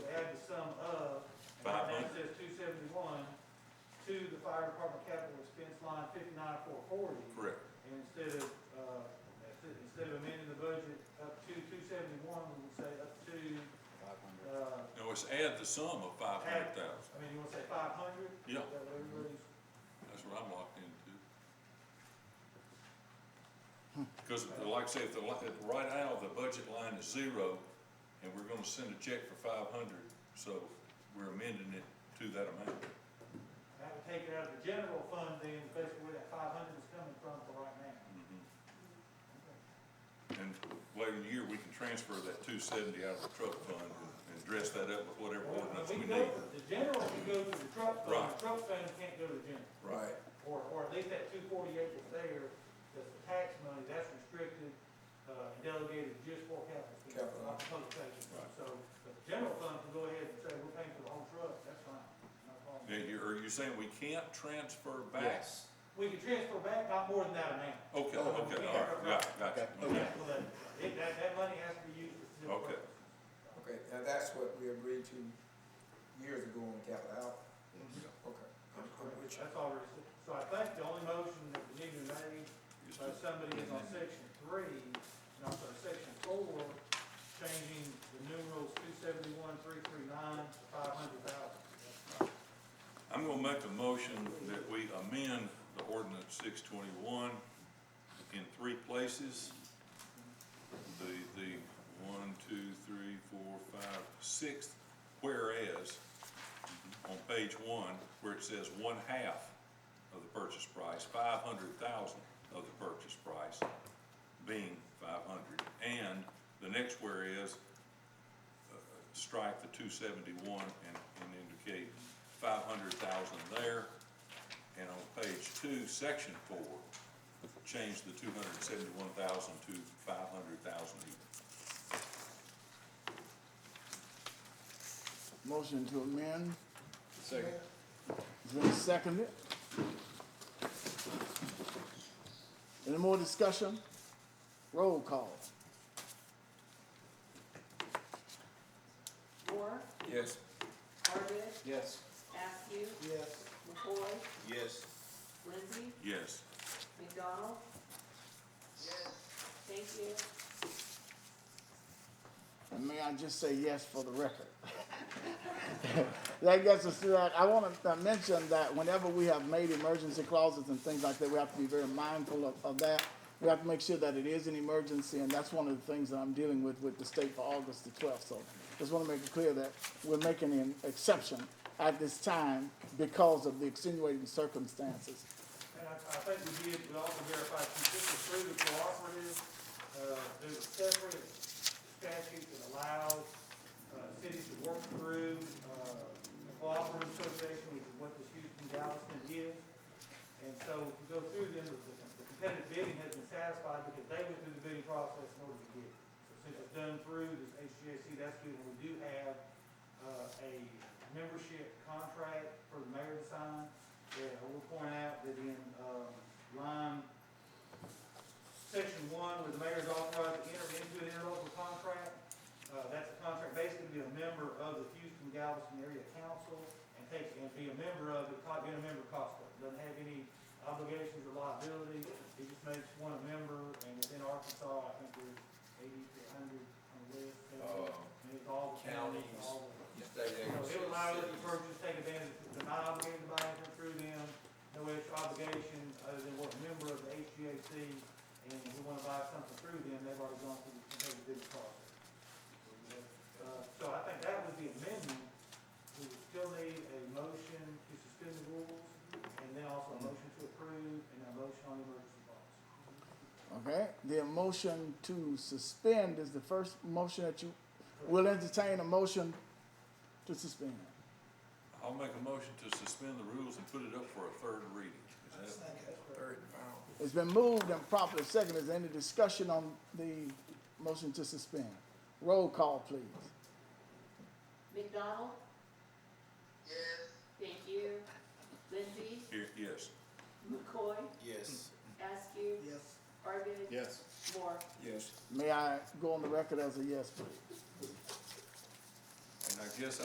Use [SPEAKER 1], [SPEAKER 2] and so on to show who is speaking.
[SPEAKER 1] department capital expense line fifty-nine four forty.
[SPEAKER 2] Correct.
[SPEAKER 1] And instead of, uh, instead of amending the budget up to two seventy-one, we would say up to, uh,
[SPEAKER 2] No, it's add the sum of five hundred thousand.
[SPEAKER 1] I mean, you wanna say five hundred?
[SPEAKER 2] Yeah.
[SPEAKER 1] That way everybody's,
[SPEAKER 2] That's what I'm locked into. Because like I say, if the, li- if right now, the budget line is zero, and we're gonna send a check for five hundred, so we're amending it to that amount.
[SPEAKER 1] that would take it out of the general fund then, basically where that five hundred is coming from for right now.
[SPEAKER 2] Mm-hmm. And later in the year, we can transfer that two seventy out of the truck fund and- and dress that up with whatever
[SPEAKER 1] Well,
[SPEAKER 2] ordinance
[SPEAKER 1] we
[SPEAKER 2] we
[SPEAKER 1] go
[SPEAKER 2] need.
[SPEAKER 1] to- The general can go to the truck fund,
[SPEAKER 2] Right.
[SPEAKER 1] the truck fund can't go to the general.
[SPEAKER 2] Right.
[SPEAKER 1] Or, or at least that two forty-eight that's there, that's the tax money, that's restricted, uh, and delegated just for capital. expenses,
[SPEAKER 3] Capital.
[SPEAKER 1] Not for public safety.
[SPEAKER 2] Right.
[SPEAKER 1] So, but the general fund can go ahead and say, we're paying for the whole truck, that's fine, no problem.
[SPEAKER 2] Now, you, are you saying we can't transfer back?
[SPEAKER 3] Yes.
[SPEAKER 1] We can transfer back not more than that amount.
[SPEAKER 2] Okay,
[SPEAKER 3] Oh,
[SPEAKER 2] okay,
[SPEAKER 1] yeah.
[SPEAKER 2] all right, got, got you. Okay.
[SPEAKER 3] Okay.
[SPEAKER 1] So that, it, that, that money has to be used for. specific
[SPEAKER 2] Okay.
[SPEAKER 1] purposes.
[SPEAKER 3] Okay, and that's what we agreed to years ago on capital outlay. Okay. Which-
[SPEAKER 1] That's all there is. So I think the only motion that we need to make
[SPEAKER 2] Just
[SPEAKER 1] So
[SPEAKER 2] to-
[SPEAKER 1] somebody is on section three, and also section four, changing the numerals two seventy-one, three three nine, to five hundred thousand.
[SPEAKER 2] I'm gonna make a motion that we amend the ordinance six twenty-one in three places. The, the one, two, three, four, five, sixth, whereas, on page one, where it says one half of the purchase price, five hundred thousand of the purchase price being five hundred, and the next whereas strike the two seventy-one and, and indicate five hundred thousand there. And on page two, section four, change the two hundred and seventy-one thousand to five hundred thousand even.
[SPEAKER 4] Motion to amend,
[SPEAKER 5] Second.
[SPEAKER 4] it's been seconded. Any more discussion? Roll call.
[SPEAKER 6] Moore,
[SPEAKER 3] Yes.
[SPEAKER 6] Arvid,
[SPEAKER 5] Yes.
[SPEAKER 6] Askew,
[SPEAKER 3] Yes.
[SPEAKER 6] McCoy,
[SPEAKER 5] Yes.
[SPEAKER 6] Lindsey,
[SPEAKER 2] Yes,
[SPEAKER 6] McDonald. Thank you.
[SPEAKER 4] And may I just say yes for the record? That gets us to that, I wanna uh, mention that whenever we have made emergency clauses and things like that, we have to be very mindful of, of that. We have to make sure that it is an emergency, and that's one of the things that I'm dealing with, with the state for August the twelfth, so just wanna make it clear that we're making an exception at this time because of the extenuating circumstances.
[SPEAKER 1] And I, I think we did, we also verified consistent through the cooperative, uh, there's a separate statute that allows, uh, cities to work through, uh, the cooperative association, which is what this Houston Galveston is. And so if you go through them, the the competitive bidding has been satisfied because they went through the bidding process in order to get it. So since it's done through this HGAC, that's good, and we do have, uh, a membership contract for the mayor to sign. Yeah, I will point out that in, um, line, section one, where the mayor's authorized to enter into an interlocal contract, uh, that's a contract basically to be a member of the Houston Galveston Area Council and take, and be a member of, it, co- being a member costs, it. doesn't have any obligations or liability. It just makes one a member, and within Arkansas, I think there's eighty to hundred on the list.
[SPEAKER 3] Uh,
[SPEAKER 1] And it's all the counties,
[SPEAKER 3] counties.
[SPEAKER 1] all the.
[SPEAKER 3] State
[SPEAKER 1] You know, it allows the purchase, take advantage, if they're not obligated by anything through them, no extra obligation, other than what a member of the HGAC, and if we wanna buy something through them, they've already gone through the competitive bidding process. Uh, So I think that was the amendment, we would still need a motion to suspend the rules, and then also a motion to approve, and a motion on the emergency clause.
[SPEAKER 4] Okay, the motion to suspend is the first motion that you, will entertain a motion to suspend.
[SPEAKER 2] I'll make a motion to suspend the rules and put it up for a third reading. Is that,
[SPEAKER 3] Third and final.
[SPEAKER 4] It's been moved and properly seconded. Is there any discussion on the motion to suspend? Roll call, please.
[SPEAKER 6] McDonald. Yes. Thank you. Lindsey,
[SPEAKER 2] here, yes,
[SPEAKER 6] McCoy,
[SPEAKER 5] Yes.
[SPEAKER 6] Askew. Yes. Arvid.
[SPEAKER 5] Yes.
[SPEAKER 6] Moore.
[SPEAKER 3] Yes.
[SPEAKER 4] May I go on the record as a yes, please?
[SPEAKER 2] and I guess